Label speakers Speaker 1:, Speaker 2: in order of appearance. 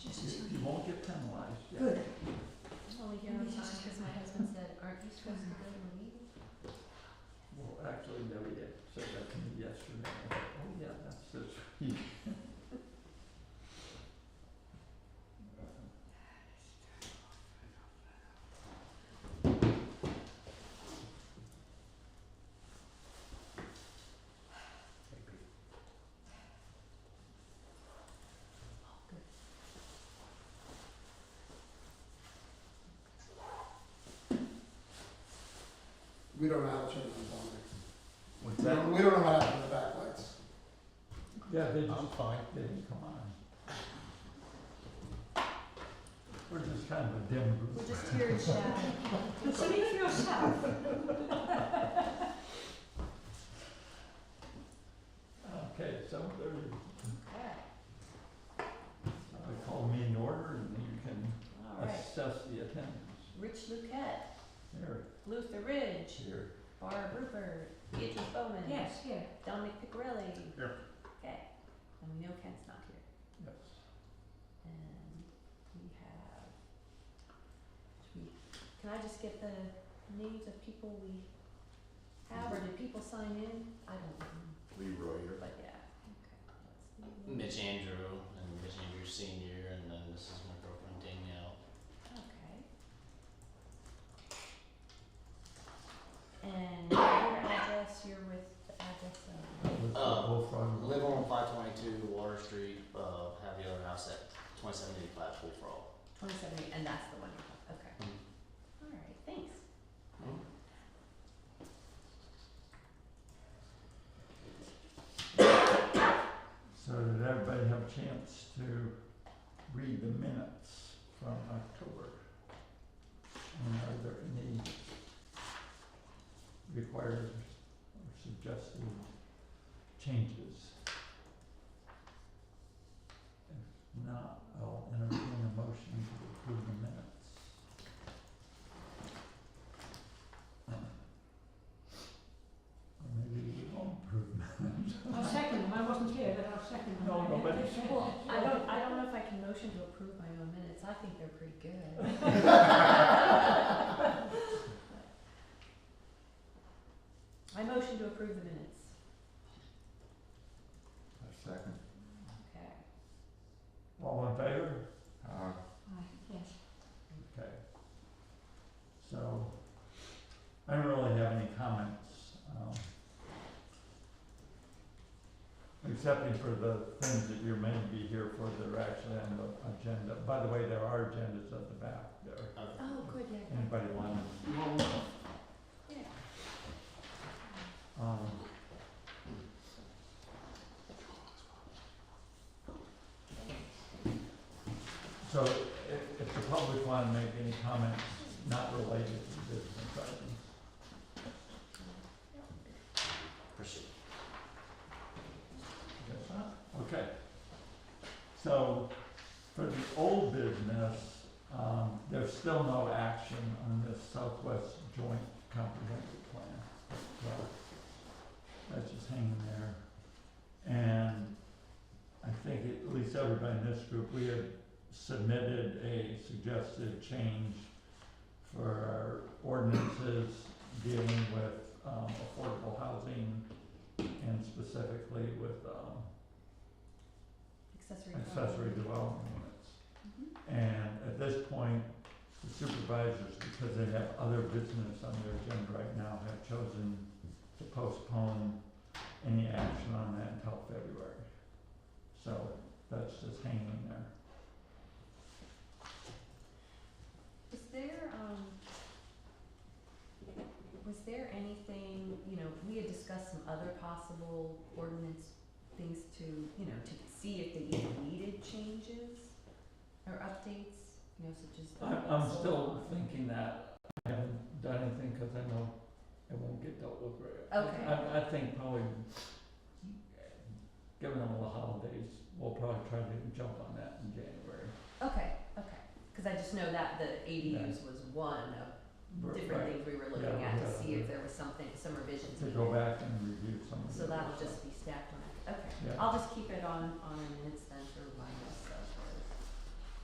Speaker 1: time wise, yeah.
Speaker 2: Good.
Speaker 3: I'm only here on time because my husband said, aren't you supposed to go to a meeting?
Speaker 1: Well, actually, no, we did, so that to me yesterday, I thought, oh yeah, that's this week.
Speaker 4: We don't know how to turn them on.
Speaker 1: What's
Speaker 4: We don't- We don't know how to turn the backlights.
Speaker 1: Yeah, they just,
Speaker 5: I'm fine.
Speaker 1: they didn't come on. We're just kind of a dim group.
Speaker 3: We're just here in shadow.
Speaker 2: So even yourself.
Speaker 1: Okay, seven thirty,
Speaker 3: Okay,
Speaker 1: I call me in order and you can
Speaker 3: all right.
Speaker 1: assess the attendance.
Speaker 3: Rich Luquette,
Speaker 1: There,
Speaker 3: Luther Ridge,
Speaker 1: here.
Speaker 3: Barb Rupert, Beatrice Bowman.
Speaker 2: Yes, here.
Speaker 3: Dominic Picarelli.
Speaker 1: Here.
Speaker 3: Okay, and we know Ken's not here.
Speaker 1: Yes.
Speaker 3: And we have, should we- can I just get the names of people we have, or did people sign in? I don't know,
Speaker 5: Leroy.
Speaker 3: but yeah, okay. let's see.
Speaker 6: Mitch Andrew and Mitch Andrew Senior, and then this is my girlfriend Danielle.
Speaker 3: Okay. And your address, you're with the address of,
Speaker 1: With the
Speaker 6: Uh,
Speaker 1: Bullfrog.
Speaker 6: Live on five twenty-two Water Street. Uh, have the other house at twenty-seven eighty-five Pool for All.
Speaker 3: twenty-seven, and that's the one, you have, okay.
Speaker 6: Mm.
Speaker 1: Mm-hmm.
Speaker 3: Alright, thanks.
Speaker 1: So did everybody have a chance to read the minutes from October? And are there any required or suggested changes? If not, I'll entertain a motion to approve the minutes. Or maybe we won't approve minutes.
Speaker 2: I'll second them. I wasn't here, but I'll second them.
Speaker 1: No, nobody-
Speaker 3: Well, I don't, I don't know if I can motion to approve my own minutes, I think they're pretty good. I motion to approve the minutes,
Speaker 1: A second.
Speaker 3: okay.
Speaker 1: All in favor?
Speaker 5: Uh,
Speaker 2: Aye, Yes.
Speaker 1: Okay. So, I don't really have any comments, um, excepting for the things that you may be here for that are actually on the agenda. By the way, there are agendas at the back there.
Speaker 6: Uh,
Speaker 3: Oh, good, yeah, good.
Speaker 1: Anybody want to
Speaker 3: yeah.
Speaker 1: Um. So if, if the public wanna make any comments not related to business items,
Speaker 6: appreciate it.
Speaker 1: I guess not, okay. So for the old business, um, there's still no action on this Southwest Joint Comprehensive Plan. So That's just hanging there. And I think at least everybody in this group, we had submitted a suggested change for our ordinances dealing with, um, affordable housing and specifically with, um,
Speaker 3: Accessory.
Speaker 1: accessory
Speaker 3: dwelling.
Speaker 1: development units.
Speaker 3: Mhm.
Speaker 1: And at this point, the supervisors, because they have other business on their agenda right now, have chosen to postpone any action on that until February. So that's just hanging there.
Speaker 3: Was there, um, was there anything, you know, we had discussed some other possible ordinance things to, you know, to see if they even needed changes or updates, you know, such as. the
Speaker 1: I'm, I'm
Speaker 3: solar
Speaker 1: still
Speaker 3: law.
Speaker 1: thinking that, I haven't done anything, cause I know it won't get dealt with very.
Speaker 3: Okay.
Speaker 1: I, I think probably, given all the holidays, we'll probably try to jump on that in January.
Speaker 3: Okay, okay, cause I just know that the ADUs was one of
Speaker 1: We're-
Speaker 3: different
Speaker 1: right.
Speaker 3: things we were looking
Speaker 1: Yeah,
Speaker 3: at to
Speaker 1: yeah.
Speaker 3: see if there was something, some revisions
Speaker 1: to
Speaker 3: we
Speaker 1: go
Speaker 3: could-
Speaker 1: back and review some of
Speaker 3: So
Speaker 1: the
Speaker 3: that'll just be stacked on, okay,
Speaker 1: Yeah.
Speaker 3: I'll just keep it on, on our minutes then for one.